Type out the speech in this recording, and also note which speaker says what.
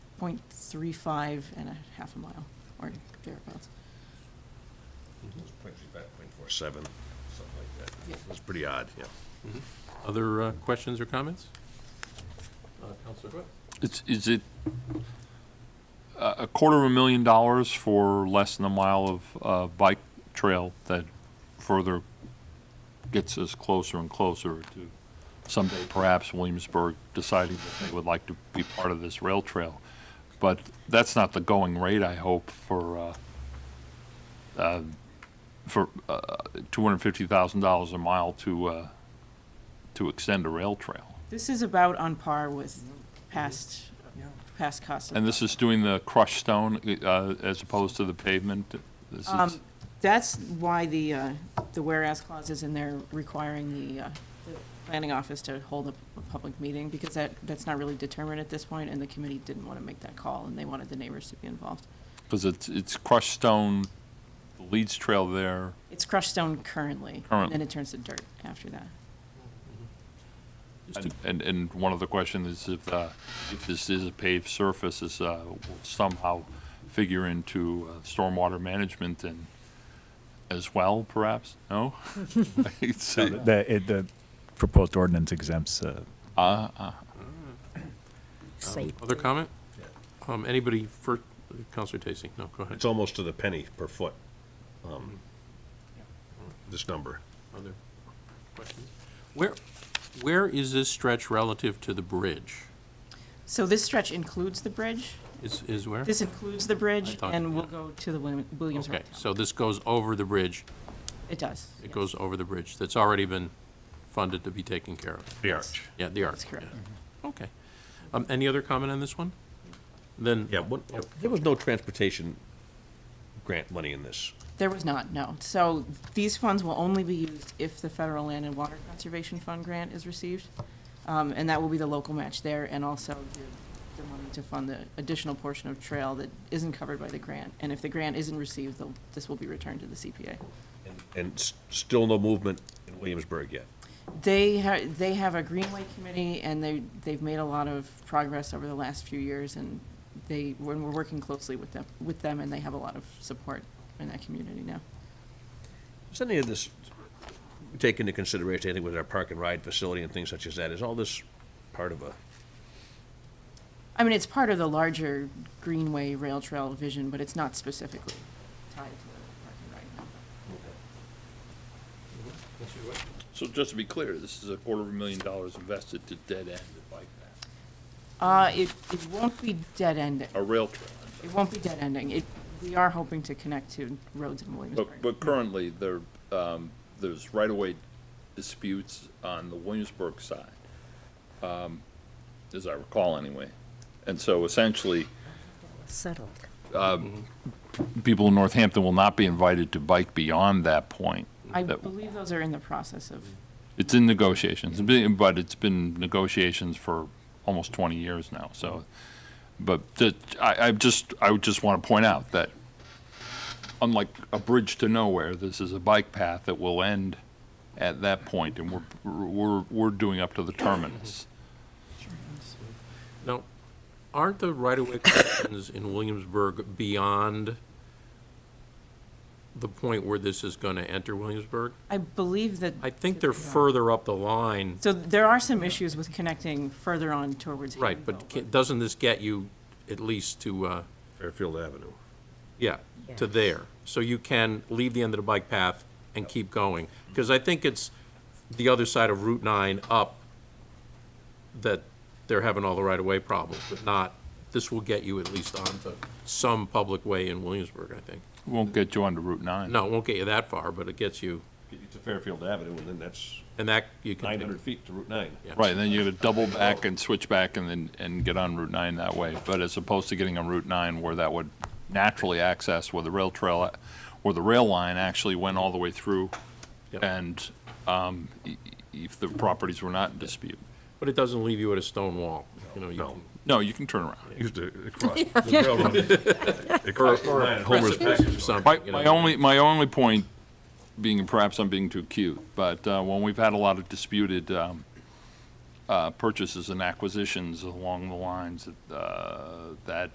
Speaker 1: 0.35 and a half a mile, or thereabouts.
Speaker 2: It was point three five, point four seven, something like that.
Speaker 1: Yeah.
Speaker 2: It was pretty odd, yeah.
Speaker 3: Other uh, questions or comments? Counselor Webb?
Speaker 4: It's, is it a a quarter of a million dollars for less than a mile of uh, bike trail that further gets us closer and closer to someday perhaps Williamsburg deciding that they would like to be part of this rail trail? But that's not the going rate, I hope, for, uh, uh, for uh, $250,000 a mile to, uh, to extend a rail trail.
Speaker 1: This is about on par with past, past costs. of-
Speaker 4: And this is doing the crushed stone uh, as opposed to the pavement? This is,
Speaker 1: Um, That's why the, uh, the whereas clause is in there requiring the uh, the planning office to hold a a public meeting, because that, that's not really determined at this point, and the committee didn't want to make that call, and they wanted the neighbors to be involved.
Speaker 4: because it's, it's crushed stone, the Leeds Trail there.
Speaker 1: It's crushed stone currently, and then
Speaker 4: Currently.
Speaker 1: it turns to dirt after that.
Speaker 4: And- And, and one other question is if, uh, if this is a paved surface, is uh, will somehow figure into uh, stormwater management and as well, perhaps? No? It's, uh,
Speaker 5: The, it, the proposed ordinance exempts, uh,
Speaker 3: Other comment? Um, Anybody for, Counselor Tacey? No, go ahead.
Speaker 2: It's almost to the penny per foot, um, this number.
Speaker 3: Other questions? Where, where is this stretch relative to the bridge?
Speaker 1: So this stretch includes the bridge?
Speaker 3: Is, is where?
Speaker 1: This includes the bridge,
Speaker 3: thought-
Speaker 1: and will
Speaker 3: yeah.
Speaker 1: go to the William- Williamsburg.
Speaker 3: Okay,
Speaker 1: Town.
Speaker 3: so this goes over the bridge,
Speaker 1: It does.
Speaker 3: it goes over the bridge that's already been funded to be taken care of.
Speaker 2: The arch.
Speaker 3: Yeah, the arc.
Speaker 1: That's correct.
Speaker 3: yeah. Okay. Um, Any other comment on this one? Then,
Speaker 2: Yeah, what, there was no transportation grant money in this.
Speaker 1: There was not, no. So these funds will only be used if the Federal Land and Water Conservation Fund grant is received. Um, and that will be the local match there and also the, the money to fund the additional portion of trail that isn't covered by the grant. And if the grant isn't received, they'll- this will be returned to the CPA.
Speaker 2: And- And s- still no movement in Williamsburg yet.
Speaker 1: They ha- they have a Greenway committee and they, they've made a lot of progress over the last few years and they, when we're working closely with them, with them and they have a lot of support in that community now.
Speaker 2: Is any of this take into consideration, anything with our park and ride facility and things such as that? Is all this part of a,
Speaker 1: I mean, it's part of the larger Greenway Rail Trail vision, but it's not specifically tied to the parking right now.
Speaker 4: So just to be clear, this is a quarter of a million dollars invested to dead end the bike path,
Speaker 1: Uh, it, it won't be dead-ending.
Speaker 4: a rail trail.
Speaker 1: It won't be dead-ending. It, we are hoping to connect to roads in
Speaker 4: But,
Speaker 1: Williamsburg.
Speaker 4: but currently, there, um, there's right-of-way disputes on the Williamsburg side, um, as I recall anyway. And so essentially.
Speaker 6: settled.
Speaker 4: People in Northampton will not be invited to bike beyond that point.
Speaker 1: I
Speaker 4: That-
Speaker 1: believe those are in the process of,
Speaker 4: It's in negotiations, It's been- but it's been negotiations for almost twenty years now, so. But the- I, I just, I would just want to point out that unlike a bridge to nowhere, this is a bike path that will end at that point, and we're, we're, we're doing up to the terminus.
Speaker 3: now, aren't the right-of-way connections in Williamsburg beyond the point where this is going to enter Williamsburg?
Speaker 1: I believe that,
Speaker 3: I think they're further up the line,
Speaker 1: so there are some issues with connecting further on towards
Speaker 3: right,
Speaker 1: Havenville.
Speaker 3: but ca- doesn't this get you at least to, uh,
Speaker 2: Fairfield Avenue?
Speaker 3: yeah, to
Speaker 6: Yes.
Speaker 3: there? So you can leave the end of the bike path and keep going? Because I think it's the other side of Route 9 up that they're having all the right-of-way problems, but not, this will get you at least onto some public way in Williamsburg, I think.
Speaker 4: Won't get you onto Route nine.
Speaker 3: No, it won't get you that far, but it gets you,
Speaker 2: To Fairfield Avenue, and then that's
Speaker 3: and that, you can.
Speaker 2: nine hundred feet to Route nine.
Speaker 3: Yeah.
Speaker 4: Right, and then you gotta double back and switch back and then, and get on Route nine that way. But as opposed to getting on Route nine where that would naturally access where the rail trail, where the rail line actually went all the way through.
Speaker 3: Yep.
Speaker 4: And, um, i- i- if the properties were not in dispute.
Speaker 3: But it doesn't leave you at a stone wall, you know, you
Speaker 2: No.
Speaker 3: can.
Speaker 4: No, you can turn around.
Speaker 2: Used to cross the railroad. It crossed the line at Homer's
Speaker 3: precipice or
Speaker 2: Package Store.
Speaker 3: something,
Speaker 4: My,
Speaker 3: you
Speaker 4: my
Speaker 3: know.
Speaker 4: only, my only point being, perhaps I'm being too cute, but uh, when we've had a lot of disputed um, uh, purchases and acquisitions along the lines that, uh, that